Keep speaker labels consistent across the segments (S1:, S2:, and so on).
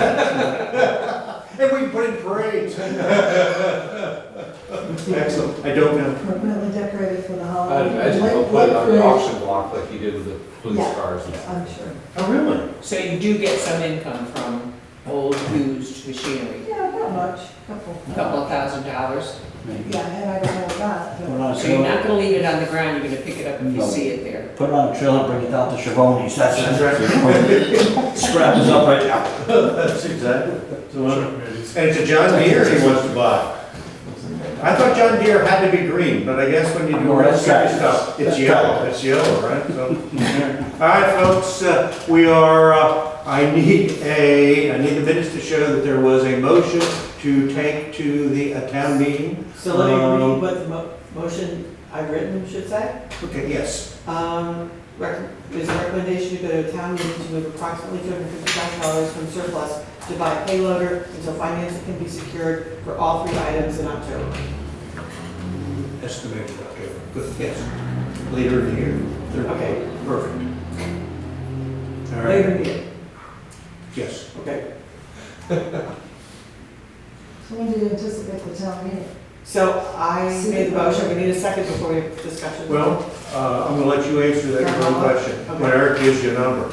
S1: we put in parades?
S2: Excellent, I don't know.
S3: appropriately decorated for the
S4: I'd
S3: holiday.
S4: imagine they'll
S3: What-
S4: put it
S3: what
S4: on the
S3: for-
S4: auction block like you did with the police
S3: Yeah,
S4: cars and
S3: I'm
S4: stuff.
S3: sure.
S2: Oh, really?
S5: So you do get some income from old used machinery,
S3: Yeah, not much, couple.
S5: a couple of thousand dollars.
S6: maybe.
S3: Yeah, and I don't have that,
S6: Put it
S3: but
S6: on a
S5: So you're not
S6: trailer,
S5: gonna leave it on the ground, you're gonna pick it up if you
S6: No.
S5: see it there.
S6: put it on a trailer, bring it down to Chavonis,
S2: That's
S6: that's
S2: right.
S6: it. Scrap this up right now.
S2: That's exactly. So, uh, And it's a John Deere he wants to buy. I thought John Deere had to be green, but I guess when you do
S6: No,
S2: red
S6: that's
S2: stripe
S6: right.
S2: stuff, it's
S6: That's
S2: yellow, it's yellow, right? So, All right, folks, uh, we are, uh, I need a, I need the minutes to show that there was a motion to take to the uh, town meeting.
S7: So let me
S2: Um,
S7: read what the mo- motion I've written should say.
S2: Okay, yes.
S7: Um, rec- There's a recommendation to go to a town meeting to move approximately two hundred fifty thousand dollars from surplus to buy a payloader until financing can be secured for all three items in October.
S2: Estimated, okay, good, yes. Later in the year. Third-
S7: Okay.
S2: Perfect. All right,
S7: Later in the year,
S2: yes.
S7: okay.
S3: so when do you anticipate the town meeting?
S7: So I made the motion, we need a second before we have discussion.
S2: Well, uh, I'm gonna let you answer that your own question, when Eric gives you a number.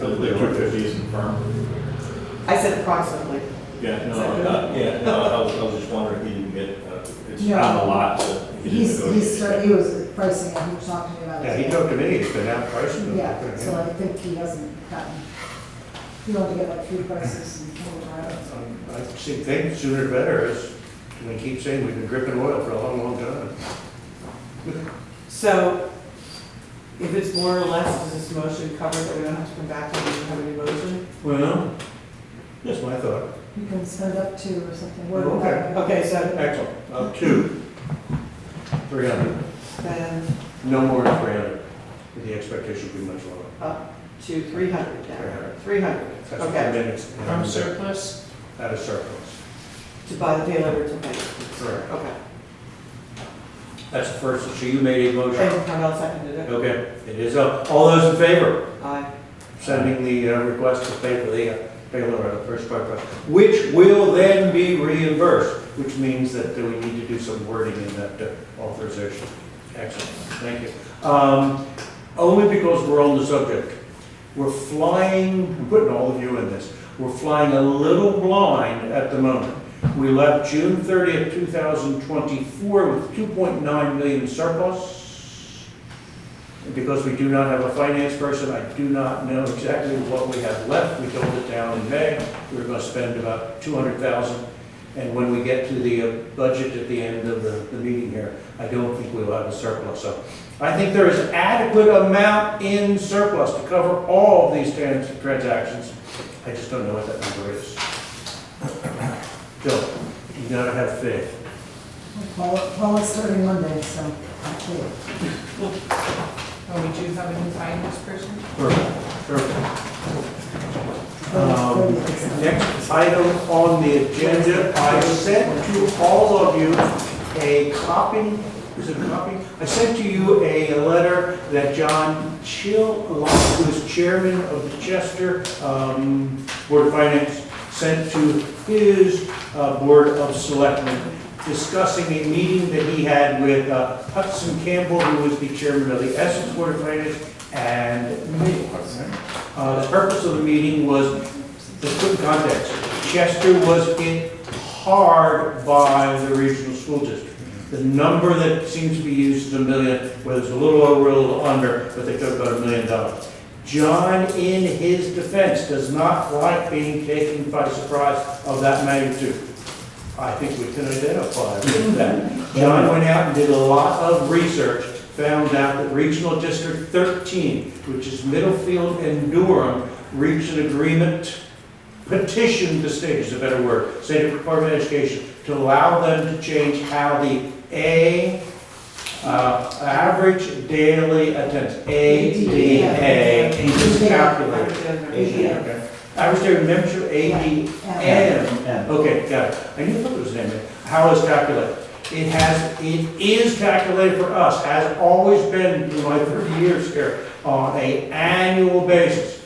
S3: Okay.
S8: fifty isn't firm.
S7: I said approximately.
S8: Yeah,
S7: Is that
S8: no,
S7: good?
S8: not, yeah, no, I was, I was just wondering if he didn't get, uh, it's
S3: Yeah.
S8: not a lot, so he didn't
S3: He's,
S8: negotiate.
S3: he's, he was pricing it, he was talking to me about it.
S2: Yeah, he talked to me, he's been out pricing. them.
S3: Yeah, so I think he hasn't gotten, he wanted to get like food prices and all that.
S2: Um, I see, think sooner the better, is, we keep saying we've been dripping oil for a long, long time.
S7: So if it's more or less, does this motion cover that we don't have to come back and we don't have any motion?
S2: Well. That's my thought.
S3: You can spend up to or something, what
S2: Okay.
S3: about?
S7: Okay, so
S2: Excellent. Uh, two. Three hundred,
S7: then
S2: no more than three hundred, the expectation would be much lower.
S7: to three hundred
S2: Three
S7: now,
S2: hundred.
S7: three hundred,
S2: That's what the
S7: okay,
S2: minutes.
S5: From surplus?
S2: Out of surplus,
S7: to buy the payloader to pay.
S2: correct.
S7: Okay,
S2: That's the first, so you made a motion.
S7: and Carmel seconded it,
S2: Okay, it is up. All those in favor?
S7: aye.
S2: sending the uh, request to pay for the uh, payload on the first part, but- which will then be reimbursed, which means that we need to do some wording in that uh, authorization. Excellent, thank you. Um, Only because we're on the subject, we're flying, I'm putting all of you in this, we're flying a little blind at the moment. We left June 30th, 2024 with 2.9 million surplus. And Because we do not have a finance person, I do not know exactly what we have left. We told the town in May, we we're gonna spend about two hundred thousand. And when we get to the uh, budget at the end of the, the meeting here, I don't think we'll have a surplus. So I think there is adequate amount in surplus to cover all of these trans- transactions. I just don't know what that number is. Bill, you gotta have faith.
S3: Well, well, it's starting Monday, so I can't.
S5: Oh, we do have a new finance person?
S2: Perfect, perfect.
S3: Well,
S2: Um,
S3: it's thirty, it's-
S2: Next item on the agenda, I sent to all of you a copy, is it a copy? I sent to you a letter that John Chill, who is chairman of the Chester um, Board of Finance, sent to his uh, Board of Selectmen discussing a meeting that he had with uh, Hudson Campbell, who was the chairman of the Essex Board of Finance, and me. Uh, The purpose of the meeting was just put in context, Chester was hit hard by the regional school district. The number that seems to be used is a million, whether it's a little over, a little under, but they took about a million dollars. John, in his defense, does not like being taken by surprise of that magnitude. I think we can identify with that. John went out and did a lot of research, found out that Regional District 13, which is Middlefield and Durham, reached an agreement, petitioned the state, is a better word, State Department of Education, to allow them to change how the A, uh, average daily attendance, ADA, is calculated.
S7: Yeah.
S2: Okay. Average daily membership, ADM,
S6: And uh,
S2: Okay, got it. I knew it was an amendment. How is calculated? It has, it is calculated for us, has always been in my 30 years here, on a annual basis.